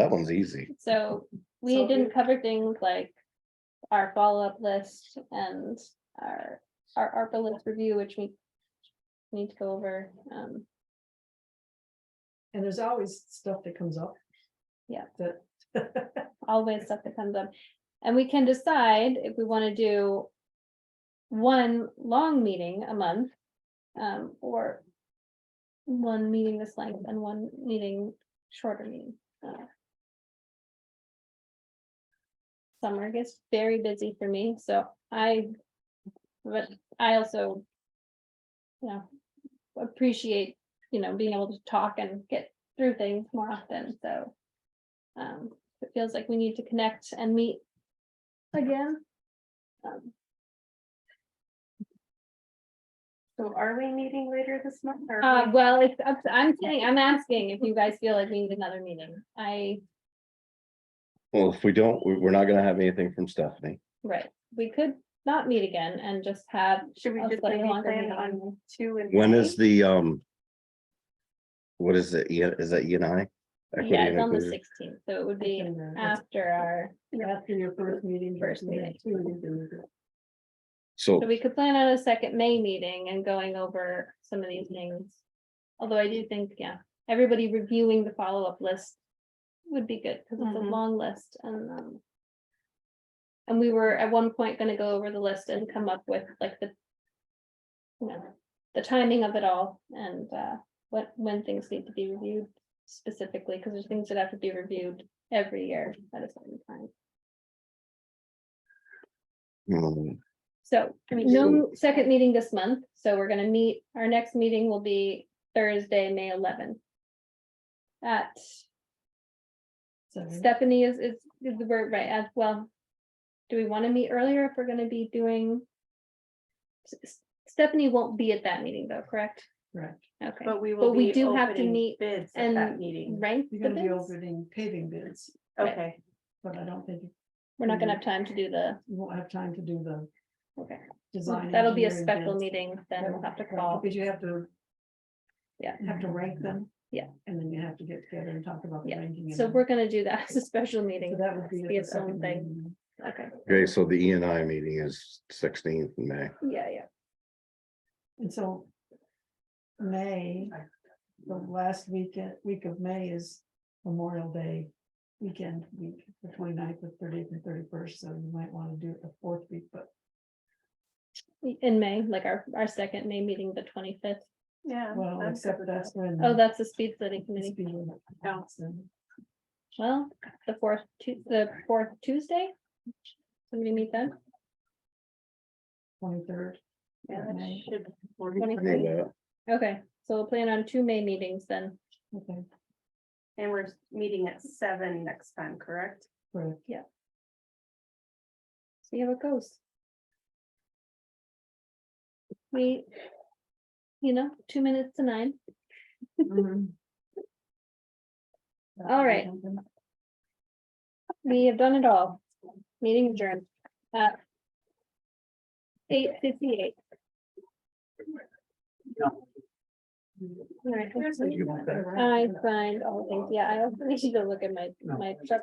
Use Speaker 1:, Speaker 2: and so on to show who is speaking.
Speaker 1: That one's easy.
Speaker 2: So we
Speaker 3: So-
Speaker 2: didn't cover things like our follow-up list and our, our ARPA list review, which we need to go over. Um,
Speaker 3: And there's always stuff that comes up.
Speaker 2: Yeah.
Speaker 3: That.
Speaker 2: always stuff that comes up. And we can decide if we want to do one long meeting a month, um, or one meeting this length and one meeting shorter meeting. uh. Summer gets very busy for me, so I, but I also, you know, appreciate, you know, being able to talk and get through things more often, so. Um, it feels like we need to connect and meet again. Um,
Speaker 4: So are we meeting later this month? or are
Speaker 2: Uh,
Speaker 4: we-
Speaker 2: well, it's, up to- I'm saying, I'm asking if you guys feel like we need another meeting. I,
Speaker 1: Well, if we don't, we- we're not gonna have anything from Stephanie.
Speaker 2: right, we could not meet again and just have.
Speaker 4: Should we
Speaker 2: a
Speaker 4: just
Speaker 2: slightly
Speaker 4: maybe
Speaker 2: longer
Speaker 4: plan
Speaker 2: meeting.
Speaker 4: on two and?
Speaker 1: When is the, um, what is it? E- Is that E and I? Equity
Speaker 2: Yeah,
Speaker 1: and
Speaker 2: it's on the
Speaker 1: inclusion.
Speaker 2: sixteenth, so it would be
Speaker 3: After
Speaker 2: after our,
Speaker 3: your first meeting.
Speaker 2: First
Speaker 3: and then
Speaker 2: meeting.
Speaker 3: two, and then the-
Speaker 1: So
Speaker 2: so we could plan on a second May meeting and going over some of these things. Although I do think, yeah, everybody reviewing the follow-up list would be good, because it's a
Speaker 4: Mhm.
Speaker 2: long list and, um. And we were at one point gonna go over the list and come up with like the. You know, the timing of it all and, uh, what, when things need to be reviewed specifically, because there's things that have to be reviewed every year at a certain time.
Speaker 1: mm,
Speaker 2: So, no second meeting this month, so we're gonna meet, our next meeting will be Thursday, May eleventh. At
Speaker 3: seven.
Speaker 2: Stephanie is, is, is the word right as well. Do we wanna meet earlier if we're gonna be doing? S- S- Stephanie won't be at that meeting though, correct?
Speaker 3: Right.
Speaker 2: Okay,
Speaker 4: But we
Speaker 2: But
Speaker 4: will
Speaker 2: we
Speaker 4: be
Speaker 2: do have to
Speaker 4: opening
Speaker 2: meet
Speaker 4: bids at that
Speaker 2: and
Speaker 4: meeting.
Speaker 2: right?
Speaker 3: You're gonna be
Speaker 2: We're
Speaker 3: opening paving bids,
Speaker 2: right.
Speaker 4: Okay,
Speaker 3: but I don't think
Speaker 2: not gonna have time to do the,
Speaker 3: you won't have time to do the
Speaker 2: okay,
Speaker 3: design.
Speaker 2: that'll be a
Speaker 3: engineering
Speaker 2: special
Speaker 3: bids.
Speaker 2: meeting, then we'll have to
Speaker 3: Right,
Speaker 2: call.
Speaker 3: Because you have to.
Speaker 2: Yeah.
Speaker 3: Have to rank them.
Speaker 2: Yeah.
Speaker 3: And then you have to get together and talk about the
Speaker 2: Yeah,
Speaker 3: ranking.
Speaker 2: So
Speaker 3: and-
Speaker 2: we're gonna do that as a special
Speaker 3: So
Speaker 2: meeting.
Speaker 3: that would be. at
Speaker 2: Be
Speaker 3: the
Speaker 2: its own
Speaker 3: second
Speaker 2: thing,
Speaker 3: meeting.
Speaker 2: okay,
Speaker 1: okay, so the E and I meeting is sixteenth in May.
Speaker 2: yeah, yeah.
Speaker 3: And so. May, the last weekend, week of May is Memorial Day weekend, week, the 29th, the thirtieth and thirty-first, so you might want to do it the fourth week, but.
Speaker 2: In May, like our, our second May meeting, the twenty-fifth.
Speaker 4: yeah.
Speaker 3: Well,
Speaker 4: I'm
Speaker 3: except
Speaker 4: good with
Speaker 3: that's
Speaker 4: that.
Speaker 3: when.
Speaker 2: Oh, that's the speed study
Speaker 3: it's
Speaker 2: committee.
Speaker 3: being announced and
Speaker 2: Well, the fourth, Tu- the fourth Tuesday. Somebody meet then?
Speaker 3: Twenty-third.
Speaker 4: Yeah, that
Speaker 3: May.
Speaker 4: should be more-
Speaker 1: I know that.
Speaker 2: Okay, so we'll plan on two May meetings then.
Speaker 3: Okay,
Speaker 4: And we're meeting at seven next time, correct?
Speaker 3: correct.
Speaker 2: See how it goes. We, you know, two minutes to nine.
Speaker 4: Mm-hmm.
Speaker 2: All right. We have done it all. Meeting adjourned. at Eight fifty-eight. All right.
Speaker 1: You want that?
Speaker 2: I find all things, yeah, I also need to look at my, my truck